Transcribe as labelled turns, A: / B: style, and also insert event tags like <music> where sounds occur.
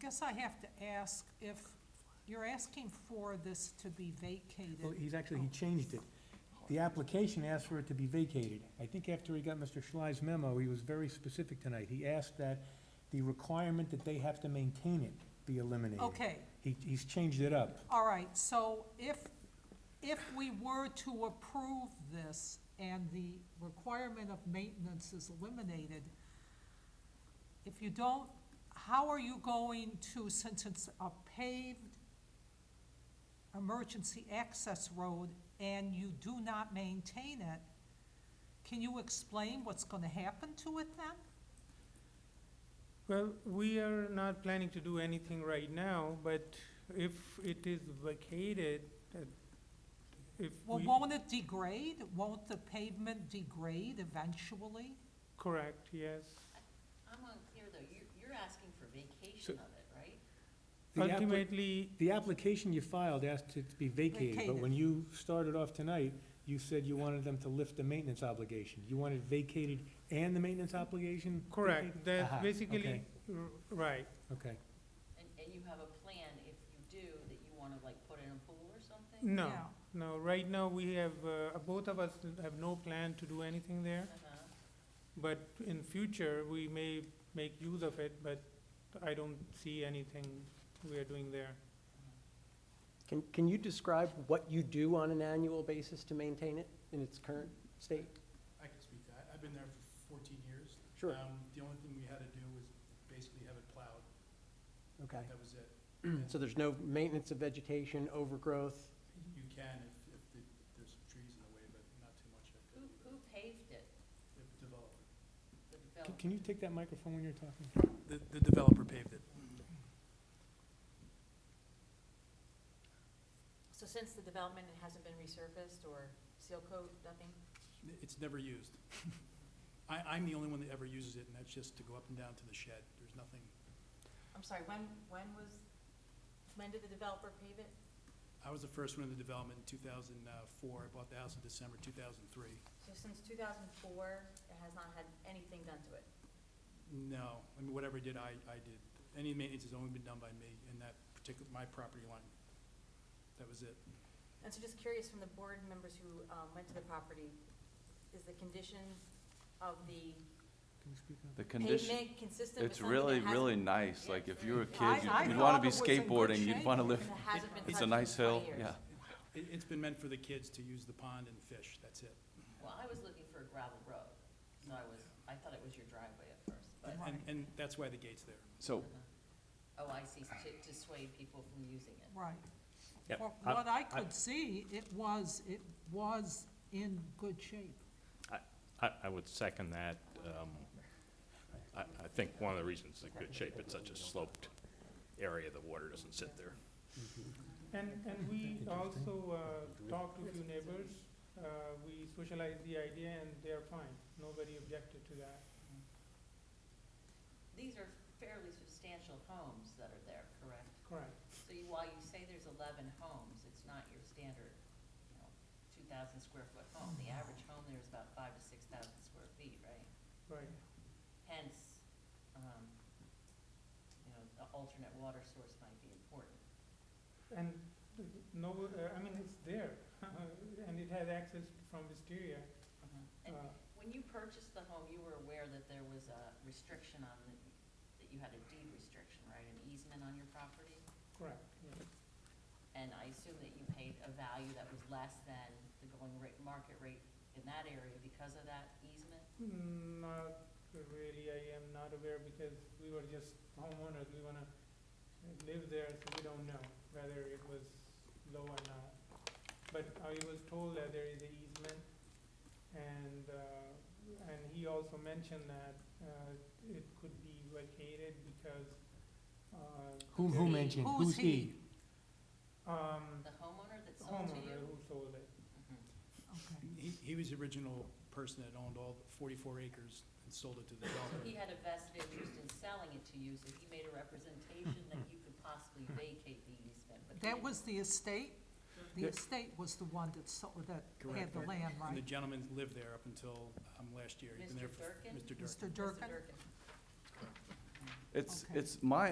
A: guess I have to ask if, you're asking for this to be
B: Well,
A: vacated.
B: he's actually, he changed it. The application asked for it to be vacated. I think after he got Mr. Schley's memo, he was very specific tonight. He asked that the requirement that they have to maintain it be eliminated.
A: Okay,
B: He, he's changed it up.
A: all right, so if, if we were to approve this and the requirement of maintenance is eliminated, if you don't, how are you going to, since it's a paved emergency access road and you do not maintain it, can you explain what's gonna happen to it then?
C: Well, we are not planning to do anything right now, but if it is vacated, uh, if
A: Well,
C: we,
A: won't it degrade? Won't the pavement degrade eventually?
C: correct, yes.
D: I'm unclear though, you're, you're asking for vacation of it, right?
B: The appli-
C: Ultimately,
B: The application you filed asked it to be vacated, but
A: Vacated.
B: when you started off tonight, you said you wanted them to lift the maintenance obligation. You wanted vacated and the maintenance obligation?
C: correct, that's
B: Aha,
C: basically,
B: okay.
C: r- right,
B: Okay.
D: And, and you have a plan, if you do, that you wanna like put in a pool or something?
C: no,
A: Yeah.
C: no, right now, we have, uh, both of us have no plan to do anything there.
D: Uh-huh.
C: But in future, we may make use of it, but I don't see anything we are doing there.
E: Can, can you describe what you do on an annual basis to maintain it in its current state?
F: I can speak to that. I've been there for fourteen years.
E: Sure.
F: Um, the only thing we had to do was basically have it plowed.
E: Okay.
F: That was it.
E: <clears throat> So there's no maintenance of vegetation, overgrowth?
F: You can if, if the- if there's some trees in the way, but not too much of
D: Who,
F: it.
D: who paved it,
F: The developer.
D: the
B: Can-
D: developer?
B: Can you take that microphone when you're talking?
F: The, the developer paved it.
G: So since the development, it hasn't been resurfaced or seal coat, nothing?
F: It's never used. <laughs> I, I'm the only one that ever uses it, and that's just to go up and down to the shed. There's nothing,
G: I'm sorry, when, when was, when did the developer pave it?
F: I was the first one in the development in two thousand and four. I bought the house in December two thousand and three.
G: So since two thousand four, it has not had anything done to it?
F: No, I mean, whatever I did, I, I did. Any maintenance has only been done by me in that particular, my property line. That was it.
G: And so just curious from the board members who, um, went to the property, is the condition of the
B: Can you speak up?
H: The condition,
G: pavement consistent with
H: it's
G: something that
H: really,
G: hasn't-
H: really nice,
G: Yeah,
H: like
G: it's
H: if you were a
G: very-
H: kid,
A: I- I
H: you'd- you'd wanna
A: thought it
H: be
A: was in good
H: skateboarding,
A: shape.
H: you'd wanna live,
G: and that hasn't been
H: it's
G: touched
H: a
G: in
H: nice
G: 20
H: hill,
G: years?
H: yeah.
F: It, it's been meant for the kids to use the pond and fish, that's it.
D: Well, I was looking for a gravel road, so I was, I thought it was your driveway at first, but,
F: And- And, and that's why the gate's there.
H: So,
D: oh, I see, to, to sway people from using it.
A: Right.
B: Yep,
A: From
B: I-
A: what I
B: I-
A: could see, it was, it was in good shape.
I: I, I would second that. Um, I, I think one of the reasons it's in good shape, it's such a sloped area, the water doesn't sit there.
C: And, and we also, uh, talked to a few neighbors, uh, we socialized the idea and they are fine, nobody objected to that.
D: These are fairly substantial homes that are there, correct?
C: Correct.
D: So you, while you say there's eleven homes, it's not your standard, you know, two thousand square foot home. The average home there is about five to six thousand square feet, right?
C: Right,
D: Hence, um, you know, the alternate water source might be important.
C: and no, uh, I mean, it's there, <laughs> and it has access from Wisteria.
D: And
C: Uh,
D: when you purchased the home, you were aware that there was a restriction on the, that you had a deed restriction, right, an easement on your property?
C: Correct, yeah.
D: And I assume that you paid a value that was less than the going rate, market rate in that area because of that easement?
C: Not really, I am not aware because we were just homeowners, we wanna live there, so we don't know whether it was low or not. But I was told that there is a easement and, uh, and he also mentioned that, uh, it could be vacated because, uh,
B: Whom, who
D: Who's
B: mentioned?
A: he?
B: Who's he?
C: um,
D: The homeowner that sold to
C: homeowner
D: you?
C: who sold it.
D: Mhm.
A: Okay.
F: He, he was the original person that owned all forty-four acres and sold it to the
D: He
F: developer.
D: had a vested interest in selling it to you, so he made a representation that you could possibly vacate the easement, but. he
A: That
D: didn't.
A: was the estate? The
B: Yeah.
A: estate was the one that sold, that had
F: Correct.
A: the land,
F: And the
A: right?
F: gentleman lived there up until, um, last year. He's been there
D: Mr.
F: for-
D: Durkin?
F: Mr. Durkin.
A: Mr.
D: Mr.
A: Durkin?
D: Durkin.
H: it's,
A: Okay.
H: it's my